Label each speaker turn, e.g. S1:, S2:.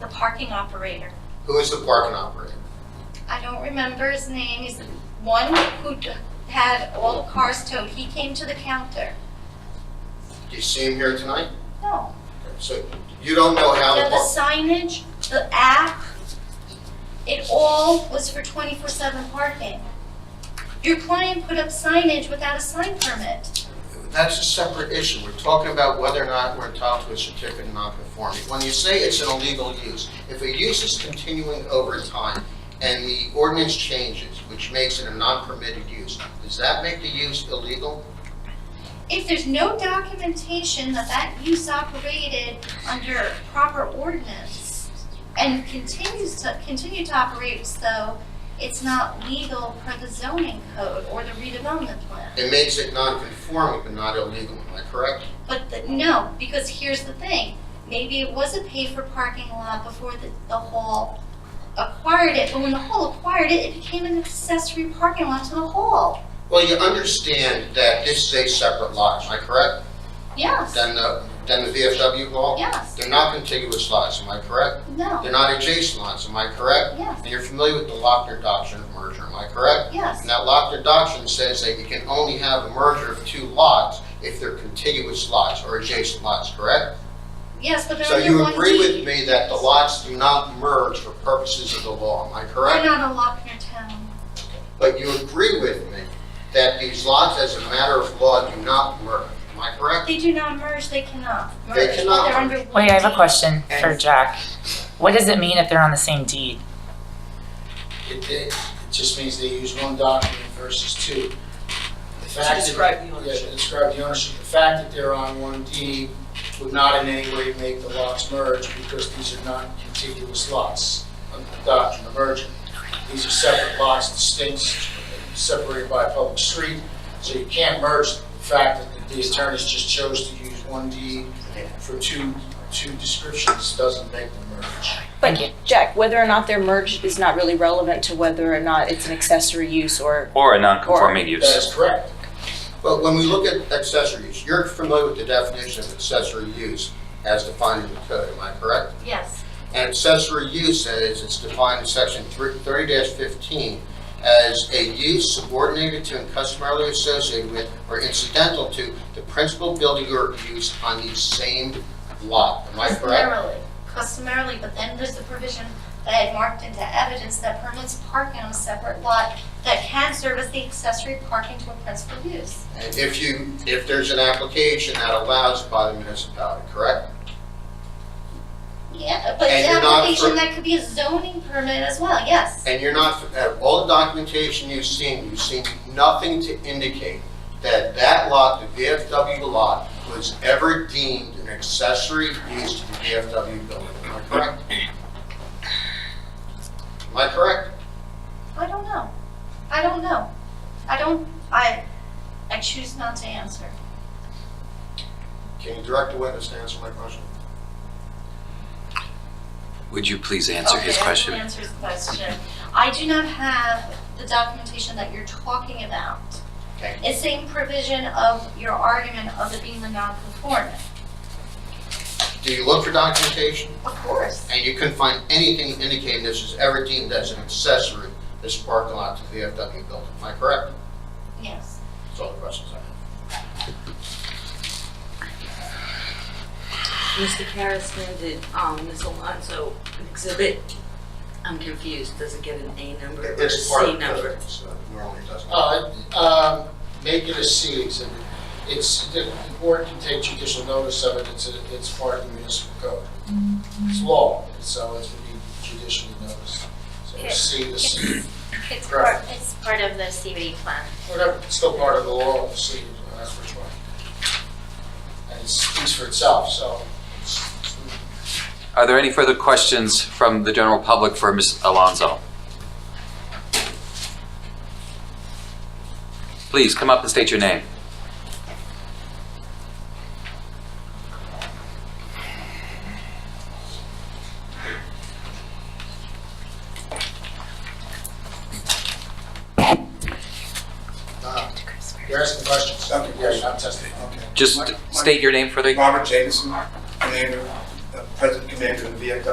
S1: the parking operator.
S2: Who is the parking operator?
S1: I don't remember his name, he's the one who d- had all the cars towed, he came to the counter.
S2: Do you see him here tonight?
S1: No.
S2: So you don't know how
S1: Yeah,
S2: the
S1: the
S2: park,
S1: signage, the app, it all was for twenty-four seven parking. Your client put up signage without a sign permit.
S2: that's a separate issue. We're talking about whether or not we're entitled to a certificate of nonconformity. When you say it's an illegal use, if a use is continuing over time and the ordinance changes, which makes it a non-permitted use, does that make the use illegal?
S1: If there's no documentation that that use operated under proper ordinance and continues to, continue to operate as though it's not legal per the zoning code or the redevelopment plan.
S2: It makes it non-conforming but not illegal, am I correct?
S1: But the, no, because here's the thing, maybe it was a pay for parking lot before the, the hall acquired it, but when the hall acquired it, it became an accessory parking lot to the hall.
S2: Well, you understand that this is a separate lot, am I correct?
S1: Yes,
S2: Than the, than the VFW hall?
S1: yes,
S2: They're not contiguous lots, am I correct?
S1: no,
S2: They're not adjacent lots, am I correct?
S1: yes,
S2: And you're familiar with the Lochner doctrine of merger, am I correct?
S1: yes,
S2: And that Lochner doctrine says that you can only have a merger of two lots if they're contiguous lots or adjacent lots, correct?
S1: yes, but they're
S2: So
S1: under
S2: you
S1: one
S2: agree with
S1: deed.
S2: me that the lots do not merge for purposes of the law, am I correct?
S1: They're not a Lochner town.
S2: But you agree with me that these lots, as a matter of law, do not merge, am I correct?
S1: They do not merge, they cannot merge.
S2: They cannot
S1: They're under
S2: merge.
S1: one
S3: Wait, I have a
S1: deed.
S3: question for Jack. What does it mean if they're on the same deed?
S4: It, it just means they use one document versus two. The fact that-
S5: describe the
S4: yeah,
S5: ownership.
S4: to describe the ownership. The fact that they're on one deed would not in any way make the lots merge because these are not contiguous lots under the doctrine of merger. These are separate lots, distinct, separated by a public street, so you can't merge. them. The fact that the attorneys just chose to use one deed for two, two descriptions doesn't make them merge.
S3: Thank
S5: But
S3: you.
S5: Jack, whether or not they're merged is not really relevant to whether or not it's an accessory use or,
S6: Or a non-conforming
S4: That
S6: use.
S4: is correct.
S2: But when we look at accessory use, you're familiar with the definition of accessory use as defined in the code, am I correct?
S1: Yes,
S2: And accessory use says it's defined in section thirty fifteen as a use subordinated to and customarily associated with or incidental to the principal building or use on the same lot, am I correct?
S1: customarily, customarily, but then there's the provision that I had marked into evidence that permits parking on a separate lot that can serve as the accessory parking to a principal use.
S2: And if you, if there's an application that allows by the municipality, correct?
S1: Yeah, but
S2: And
S1: the
S2: you're not
S1: application,
S2: for-
S1: that could be a zoning permit as well, yes.
S2: And you're not, uh, all the documentation you've seen, you've seen nothing to indicate that that lot, the VFW lot, was ever deemed an accessory use to the VFW building. Am I correct? Am I correct?
S1: I don't know. I don't know. I don't, I, I choose not to answer.
S2: Can you direct the witness to answer my question?
S6: Would you please answer
S1: Okay,
S6: his
S1: I will
S6: question?
S1: answer his question. I do not have the documentation that you're talking about.
S2: Okay.
S1: It's same provision of your argument of it being the non-conformant.
S2: Do you look for documentation?
S1: Of course.
S2: And you couldn't find anything indicating this was ever deemed as an accessory, this parking lot to the VFW building. Am I correct?
S1: Yes.
S2: That's all the questions I have.
S7: Mr. Karas handed um, Ms. Alonso an exhibit. I'm confused. Does it get an A number or a
S2: It's part
S7: C
S2: of the
S7: number?
S2: code, so Normally it doesn't.
S4: Uh, um, Make it a C exhibit. It's, the the board can take judicial notice of it, it's, a- it's part of the municipal code. It's law, so it's to be judicially noticed. So a C, the C,
S8: It's
S4: Right.
S8: part, it's part of the CBD plan.
S4: whatever, it's still part of the law, the C, that's which one. And it speaks for itself, so.
S6: Are there any further questions from the general public for Ms. Alonso? Please come up and state your name.
S4: uh, You're asking questions.
S9: Okay.
S4: Yeah, you're not testifying.
S9: Okay.
S6: Just
S9: My- my-
S6: state your name for the
S9: Robert Jameson, commander, uh, president commander of the VFW